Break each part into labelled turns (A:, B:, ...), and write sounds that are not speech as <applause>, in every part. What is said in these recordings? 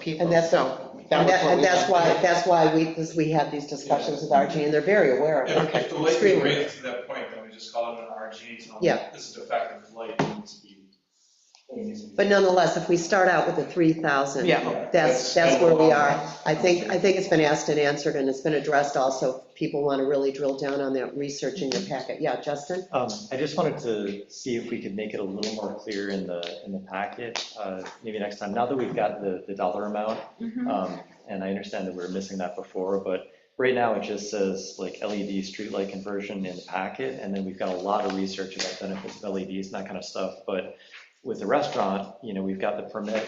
A: people,
B: And that's-
A: so. that
B: And
A: was
B: that,
A: what
B: and
A: we
B: that's
A: did.
B: why, that's why we, this- we had these discussions with RG, and they're very aware of
C: If, if
B: it,
C: the light was
B: extremely.
C: raised to that point, then we just call it an RG, tell them,
B: Yeah.
C: this is defective light, it needs to be. it needs to be-
B: But nonetheless, if we start out with the three thousand,
A: Yeah.
B: that's, that's where we are. I think, I think it's been asked and answered, and it's been addressed also, If people want to really drill down on that, research in your packet, yeah, Justin?
D: Um, I just wanted to see if we could make it a little more clear in the, in the packet, uh, maybe next time, now that we've got the, the dollar amount.
A: Mhm.
D: um, And I understand that we were missing that before, but right now it just says like LED streetlight conversion in the packet. And then we've got a lot of research about benefits of LEDs and that kind of stuff. But with the restaurant, you know, we've got the permit,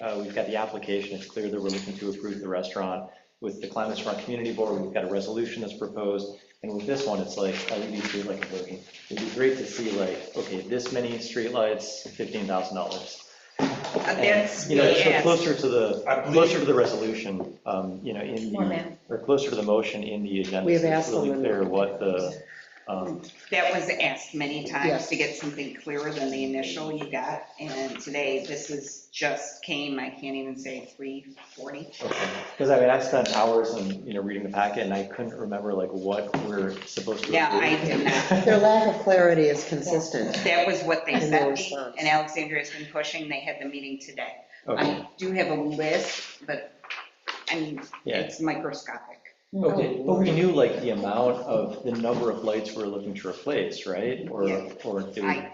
D: uh, we've got the application, it's clear that we're looking to approve the restaurant. With the Climate Smart Community Board, we've got a resolution that's proposed. And with this one, it's like LED streetlight conversion. It'd be great to see like, okay, this many streetlights, $15,000.
A: Uh, That's,
D: You know, so
A: yes.
D: closer to the,
C: I believe-
D: closer to the resolution, um, you know, in
A: More
D: the,
A: than-
D: or closer to the motion in the agenda.
B: We have
D: so it's
B: asked them
D: Really
B: and-
D: clear what the, um,
A: That was asked many times
B: Yes.
A: to get something clearer than the initial you got, and today, this is just came, I can't even say three forty.
D: because I mean, I spent hours and, you know, reading the packet and I couldn't remember like what we're supposed to.
A: Yeah, I
D: approve.
A: did not.
B: Their lack of clarity is consistent.
A: That was what they
B: And no
A: sent me,
B: response.
A: and Alexandria's been pushing, they had the meeting today.
D: <laughs>
B: <laughs>
D: Okay,
A: I do have a list, but, I mean,
D: Yeah.
A: it's microscopic.
D: okay, but we knew like the amount of, the number of lights we're looking to replace, right? Or,
A: Yeah.
D: or do we?
A: I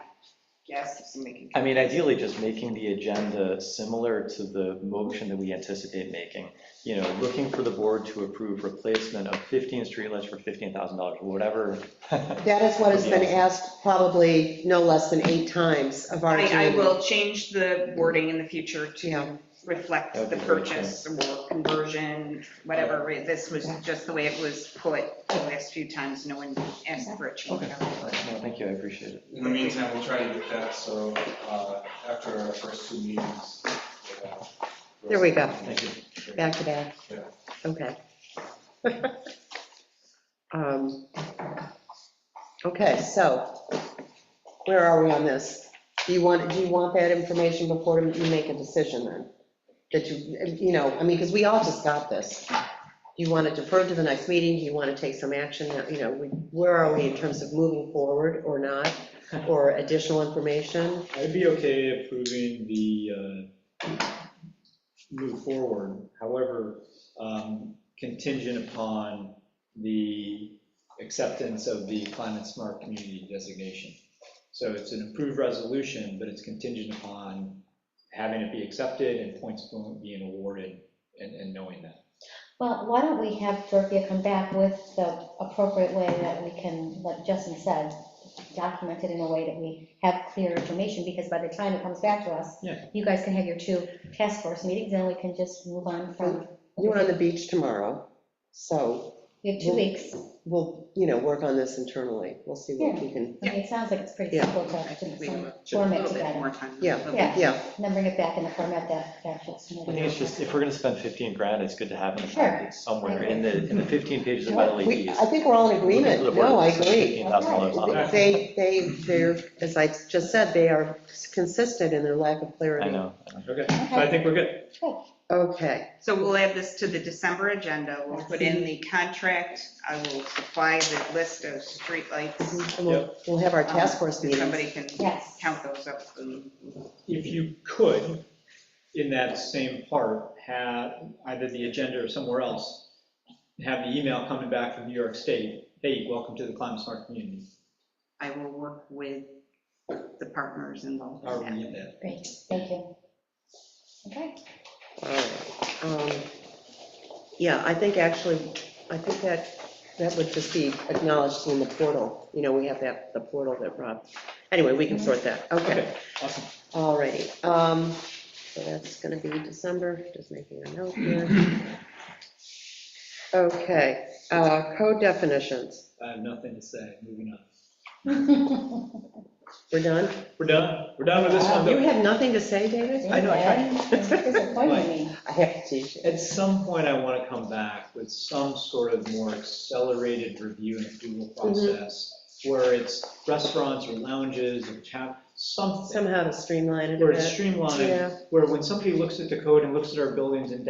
A: guess if somebody
D: I
A: can.
D: mean, ideally, just making the agenda similar to the motion that we anticipate making. You know, looking for the board to approve replacement of 15 streetlights for $15,000, or whatever. <laughs>
B: That is what has been asked probably no less than eight times of RG.
A: I, I will change the wording in the future
B: Yeah.
A: to reflect
D: That'd
A: the
D: be great, yeah.
A: purchase or conversion, whatever. This was just the way it was put the last few times, no one asked for a change.
D: Okay. No, thank you, I appreciate it.
C: In the meantime, we'll try to get that, so, uh, after our first two meetings. we'll uh, have-
B: There we go.
D: Thank you.
B: Back to back?
C: Yeah.
B: Okay. Um, Okay, so where are we on this? Do you want, do you want that information before you make a decision then? That you, you know, I mean, because we all just got this. Do you want to defer to the next meeting? Do you want to take some action? You know, we- where are we in terms of moving forward or not? Or additional information?
E: I'd be okay approving the, uh, move forward, however, um, contingent upon the acceptance of the climate smart community designation. So it's an approved resolution, but it's contingent upon having it be accepted and points being awarded and, and knowing that.
F: Well, why don't we have Dorothea come back with the appropriate way that we can, like Justin said, document it in a way that we have clear information, because by the time it comes back to us,
E: Yeah.
F: you guys can have your two task force meetings, and we can just move on from,
B: You're on the beach tomorrow, so
F: we have two weeks.
B: we'll, you know, work on this internally. We'll see what we can,
F: I mean, it sounds like it's pretty
B: Yeah.
F: simple to,
A: I think
F: to
A: we have
F: some-
A: a little bit
F: together.
A: more time.
B: Yeah.
F: Yeah.
B: yeah,
F: and then bring it back in the format that, that Justin.
D: I think it's just, if we're going to spend 15 grand, it's good to have in the
F: Sure.
D: packet somewhere, in the, in the 15 pages about
B: We-
D: LEDs.
B: I think we're all in agreement.
D: Looking for the board
B: No, I
D: to spend
B: agree.
D: $15,000 on it.
B: They, they, they're, as I just said, they are consistent in their lack of
D: I
B: clarity.
D: know.
E: Okay, so I think we're good.
B: Okay,
A: So we'll add this to the December agenda. We'll put in the contract. I will supply the list of streetlights.
B: and we'll, we'll have our task force
A: If
B: meeting.
A: Somebody can
F: Yes.
A: count those up and
E: if you could, in that same part, have either the agenda or somewhere else, have the email coming back from New York State, hey, welcome to the Climate Smart Community.
A: I will work with the partners involved. in
E: Are
A: that.
E: we in that?
F: Great, thank you. Okay,
B: All right. Um, Yeah, I think actually, I think that, that would just be acknowledged in the portal. You know, we have that, the portal that Rob, anyway, we can sort that. Mhm. Okay.
E: Okay, awesome.
B: Alrighty, um, so that's gonna be December, just making a note <clears throat> here. Okay, uh, code definitions,
E: I have nothing to say, moving on.
B: we're done?
E: We're done, we're done with this one.
B: Uh, You
E: though.
B: had nothing to say, David?
E: I know, I tried.
F: <laughs> It's disappointing me.
B: I have to teach you.
E: At some point, I want to come back with some sort of more accelerated review and approval
B: Mm-hmm.
E: process, where it's restaurants or lounges or chap, something,
B: Somehow to streamline it a
E: where it's
B: bit.
E: streamlined,
B: Yeah.
E: where when somebody looks at the code and looks at our buildings and